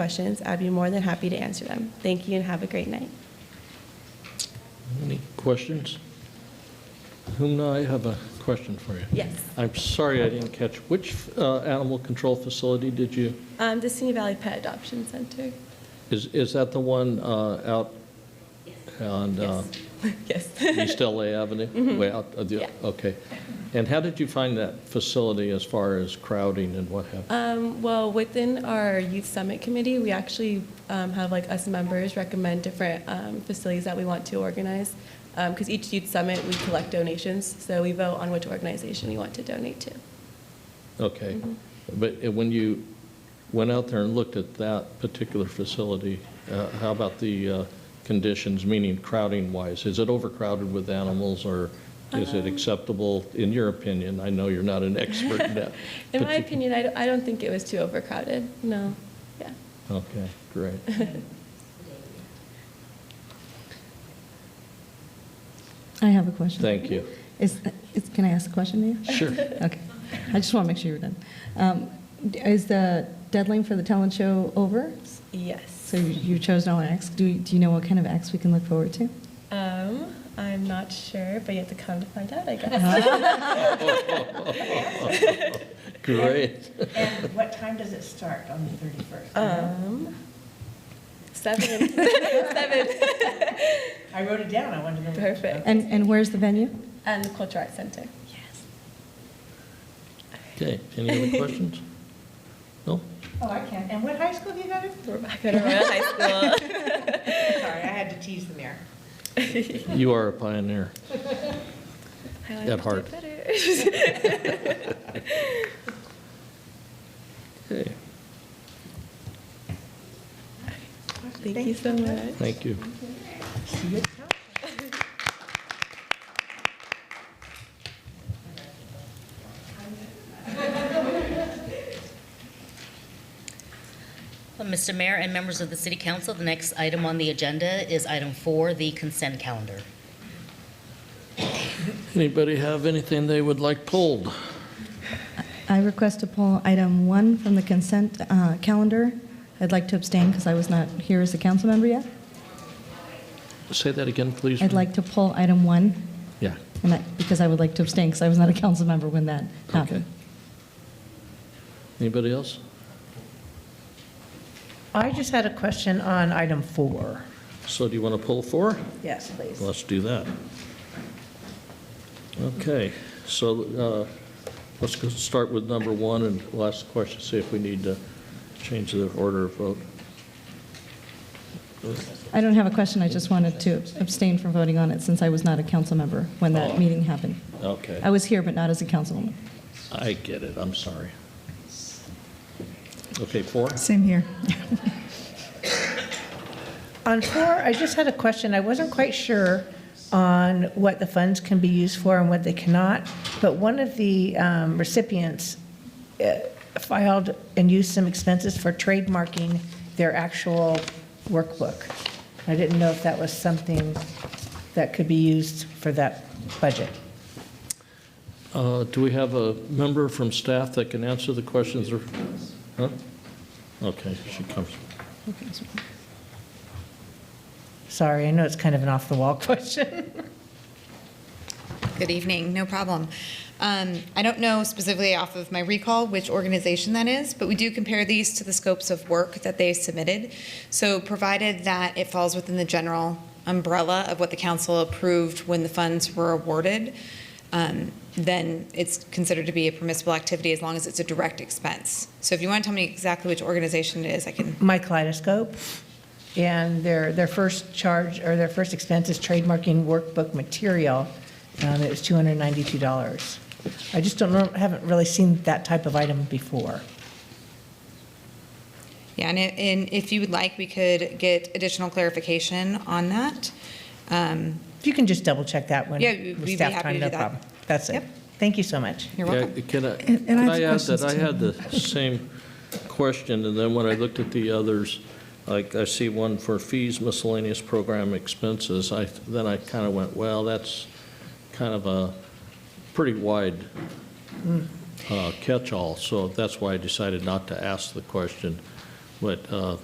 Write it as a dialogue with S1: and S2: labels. S1: questions, I'd be more than happy to answer them. Thank you and have a great night.
S2: Any questions? Humna, I have a question for you.
S1: Yes.
S2: I'm sorry I didn't catch, which uh, animal control facility did you,
S1: Um, the Simi Valley Pet Adoption Center.
S2: is, is that the one uh, out on uh,
S1: Yes. Mm-hmm.
S2: East LA Avenue? Way out, of the-
S1: Yeah.
S2: okay. And how did you find that facility as far as crowding and what happened?
S1: Um, well, within our youth summit committee, we actually um, have like us members recommend different um, facilities that we want to organize. Because each youth summit, we collect donations, so we vote on which organization we want to donate to.
S2: Okay.
S1: Mm-hmm.
S2: But uh, when you went out there and looked at that particular facility, uh, how about the uh, conditions, meaning crowding-wise? Is it overcrowded with animals, or is
S1: Um.
S2: it acceptable, in your opinion? I know you're not an expert in that.
S1: In my
S2: particu-
S1: opinion, I don't, I don't think it was too overcrowded. No. Yeah.
S2: Okay, great.
S3: I have a question.
S2: Thank you.
S3: Is, is, can I ask a question to you?
S2: Sure.
S3: Okay. I just want to make sure you're done. Um, d- Is the deadline for the talent show over?
S1: Yes.
S3: So you you chose no acts. Do, you- do you know what kind of acts we can look forward to?
S1: Um, I'm not sure, but you have to come to find out, I guess.
S2: Great.
S4: And what time does it start on the 31st?
S1: Um, seven. seven.
S4: I wrote it down, I wanted to know. Oh,
S1: Perfect.
S3: And, and where's the venue?
S1: And the Culture Arts Center.
S2: Okay, any other questions? No?
S4: Oh, I can. And what high school do you go to?
S1: We're back at Arroyo High School.
S4: Sorry, I had to tease the mayor.
S2: You are a pioneer.
S1: I
S2: At heart.
S1: Do better.
S2: Okay,
S1: Thank you so much.
S2: thank you.
S4: See you.
S5: Well, Mr. Mayor and members of the City Council, the next item on the agenda is item four, the consent calendar.
S2: Anybody have anything they would like pulled?
S3: I request to pull item one from the consent uh, calendar. I'd like to abstain because I was not here as a council member yet.
S2: Say that again, please.
S3: I'd
S2: ma'am.
S3: like to pull item one,
S2: Yeah,
S3: and I, because I would like to abstain because I was not a council member when that
S2: okay.
S3: happened.
S2: Anybody else?
S4: I just had a question on item four.
S2: So do you want to pull four?
S4: Yes, please.
S2: Let's do that. Okay, so uh, let's go start with number one and we'll ask the question, see if we need to change the order of vote.
S3: I don't have a question, I just wanted to abstain from voting on it since I was not a council member when
S2: Oh.
S3: that meeting happened. I
S2: Okay,
S3: was here, but not as a councilwoman.
S2: I get it, I'm sorry. Okay, four?
S3: Same here.
S4: On four, I just had a question. I wasn't quite sure on what the funds can be used for and what they cannot, but one of the um, recipients uh, filed and used some expenses for trademarking their actual workbook. I didn't know if that was something that could be used for that budget.
S2: Uh, Do we have a member from staff that can answer the questions or? huh? Okay, she comes.
S4: Sorry, I know it's kind of an off-the-wall question.
S6: Good evening, no problem. Um, I don't know specifically off of my recall which organization that is, but we do compare these to the scopes of work that they submitted. So provided that it falls within the general umbrella of what the council approved when the funds were awarded, um, then it's considered to be a permissible activity as long as it's a direct expense. So if you want to tell me exactly which organization it is, I can
S4: my kaleidoscope, and their, their first charge, or their first expense is trademarking workbook material. Um, It was $292. I just don't, know haven't really seen that type of item before.
S6: Yeah, and, it- and if you would like, we could get additional clarification on that. Um,
S4: If you can just double-check that one.
S6: Yeah, we'd be
S4: staff
S6: happy
S4: time,
S6: to
S4: no
S6: do that.
S4: problem. That's it.
S6: Yep.
S4: Thank you so much.
S6: You're
S2: Yeah,
S6: welcome.
S2: Can I,
S3: And- and
S2: can
S3: I have
S2: I add that
S3: questions
S2: I
S3: too.
S2: had the same question, and then when I looked at the others, like, I see one for fees miscellaneous program expenses, I, then I kind of went, well, that's kind of a pretty wide uh, catch-all, so that's why I decided not to ask the question. what uh,